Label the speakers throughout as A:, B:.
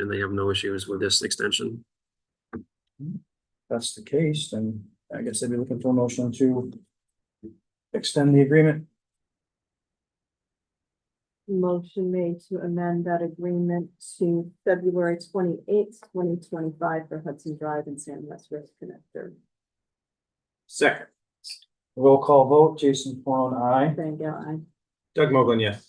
A: and they have no issues with this extension.
B: that's the case, then I guess I'd be looking for a motion to extend the agreement.
C: Motion made to amend that agreement to February twenty-eighth, twenty twenty-five for Hudson Drive and San West River Connector.
D: Second.
B: Roll call vote, Jason Peron, aye.
C: Thank you, I.
D: Doug Mogul, yes.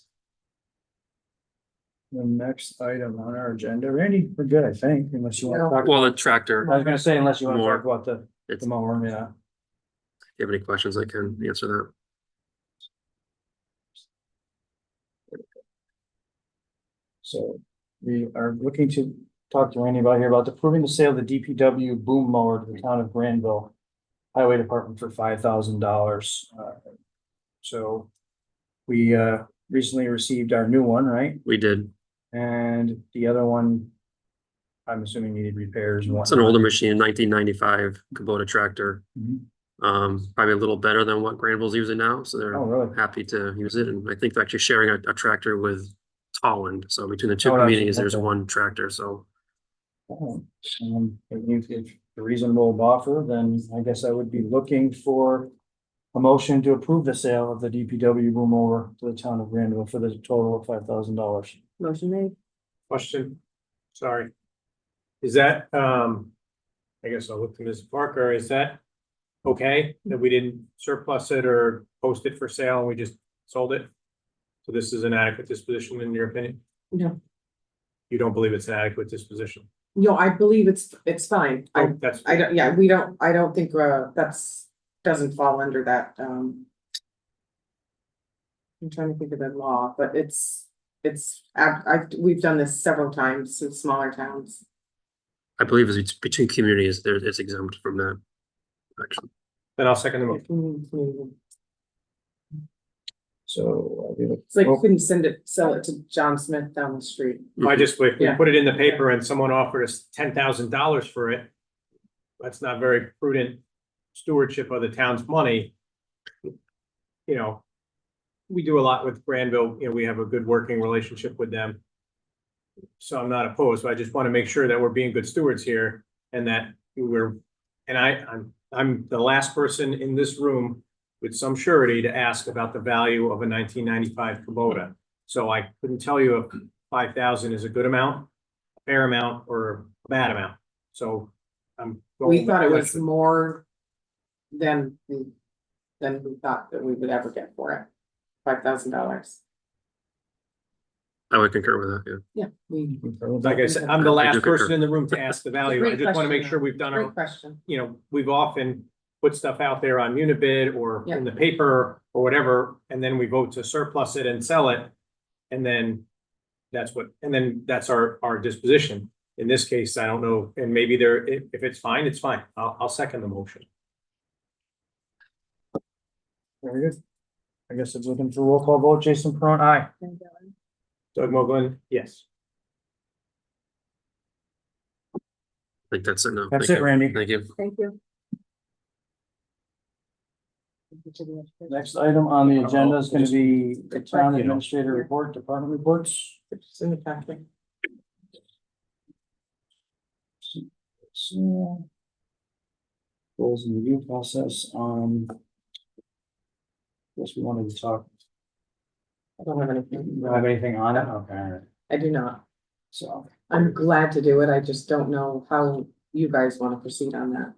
B: The next item on our agenda, Randy, we're good, I think, unless you want to talk.
A: Well, the
B: I
A: tractor,
B: was gonna say, unless you want to
A: More.
B: talk about the,
A: It's-
B: the mower, yeah.
A: if you have any questions, I can answer that.
B: So we are looking to talk to Randy about here about approving the sale of the DPW boom mower to the town of Granville Highway Department for five thousand dollars. So we uh recently received our new one, right?
A: We did.
B: And the other one, I'm assuming needed repairs and
A: It's an
B: whatnot.
A: older machine, nineteen ninety-five Kubota tractor.
B: Mhm.
A: Um, probably a little better than what Granville's using now, so
B: Oh,
A: they're
B: really?
A: happy to use it. And I think they're actually sharing a, a tractor with Tolland. So between the two
B: Oh, that's-
A: communities, there's
B: okay.
A: one tractor, so
B: Oh, um, If if a reasonable offer, then I guess I would be looking for a motion to approve the sale of the DPW boom mower to the town of Granville for the total of five thousand dollars.
C: Motion made.
D: Question, sorry. Is that, um, I guess I'll look to Ms. Parker, is that okay that we didn't surplus it or post it for sale and we just sold it? So this is an adequate disposition in your opinion?
E: No.
D: You don't believe it's an adequate disposition?
E: No, I believe it's, it's fine. I,
D: Oh, That's,
E: I don't, yeah, we don't, I don't think, uh, that's, doesn't fall under that, um. I'm trying to think of the law, but it's, it's, I've, I've, we've done this several times in smaller towns.
A: I believe it's between communities, there, it's exempt from that. Actually,
D: then I'll second the
E: Oh.
D: motion.
E: It's
B: So I'll be looking
E: like, you couldn't send it, sell it to John Smith down the street.
D: I just, if we
E: Yeah.
D: put it in the paper and someone offered us ten thousand dollars for it, that's not very prudent stewardship of the town's money. You know, we do a lot with Granville, you know, we have a good working relationship with them. So I'm not opposed, but I just want to make sure that we're being good stewards here and that we're, and I, I'm, I'm the last person in this room with some surety to ask about the value of a nineteen ninety-five Kubota. So I couldn't tell you if five thousand is a good amount, a fair amount, or a bad amount. So I'm.
E: We thought it was more than, we than we thought that we would ever get for it. Five thousand dollars.
A: I would concur with that, yeah.
E: Yeah, we,
B: for-
D: Like I said, I'm the
A: I do
D: last
A: concur.
D: person in the room to ask the value. I
E: Great
D: just want to make
E: question,
D: sure we've done
E: great
D: our,
E: question.
D: you know, we've often put stuff out there on Unibid or
E: Yeah.
D: in the paper or whatever, and then we vote to surplus it and sell it. And then that's what, and then that's our, our disposition. In this case, I don't know, and maybe there, if, if it's fine, it's fine. I'll, I'll second the motion.
B: Very good. I guess it's looking for roll call vote. Jason Peron, aye.
C: Thank you, I.
D: Doug Mogul, yes.
A: I think that's it now.
B: That's
A: Thank
B: it,
A: you.
B: Randy.
A: Thank you.
C: Thank you. Thank you to the education.
B: Next item on the agenda is gonna be the town
D: You know.
B: administrator report, department reports.
E: It's in the packet.
B: So. Goals and review process, um. Guess we wanted to talk,
E: I don't have
B: you
E: anything.
B: don't have anything on it? Okay, all right.
E: I do not.
B: so.
E: I'm glad to do it. I just don't know how you guys want to proceed on that.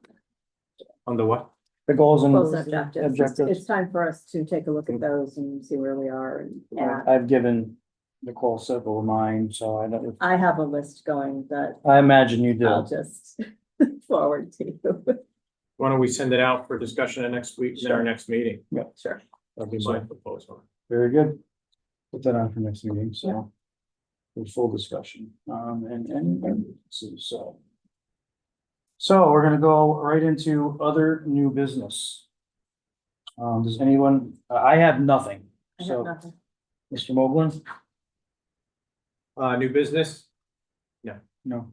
D: On the what?
B: The goals and
C: Close objectives. It's- It's
B: objectives,
C: time for us to take a look at those and see where we are and add.
B: I've given Nicole several of mine, so I don't,
C: I have a list going that
B: I imagine you did.
C: I'll just forward to you.
D: Why don't we send it out for discussion at next week, at our next meeting?
C: Sure.
B: That'd be
D: That'd be
B: my-
D: my proposal.
B: Very good. Put that on for next meeting, so. In full discussion, um, and, and, and so- so. So we're gonna go right into other new business. Um, does anyone, I have nothing,
C: I have
B: so,
C: nothing.
B: Mr. Mogul,
D: Uh, new business,
B: no.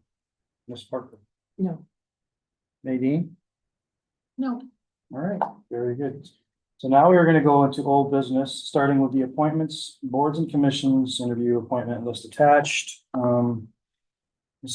B: Ms. Parker,
E: No,
B: Nadine,
E: no.
B: all right, very good. So now we are gonna go into old business, starting with the appointments, boards and commissions, interview appointment list attached, um.